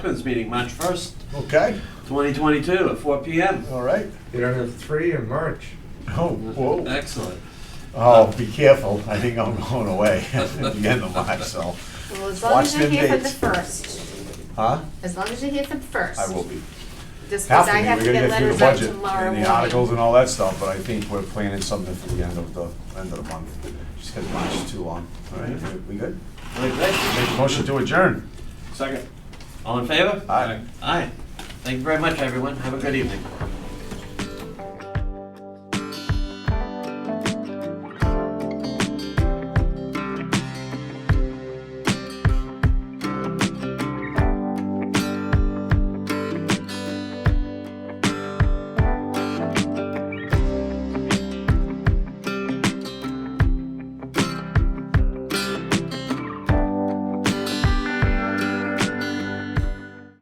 Selectmen's meeting, March 1st, Okay, 2022, at 4 PM. all right. You don't have three in March. Oh, whoa. Excellent. Oh, be careful. I think I'm going away at the end of March, so. Well, as long Watch as you're them here for the dates. first, Huh? as long as you're here for the first. I will be. Just Have because to I be. have to We're gonna get get through letters the out budget tomorrow and morning. the articles and all that stuff, but I think we're planning something for the end of the, end of the month. Just because March is too long. All right, we- we good? Make a motion to adjourn. Second. All in favor? Aye. Aye. Thank you very much, everyone. Have a good evening.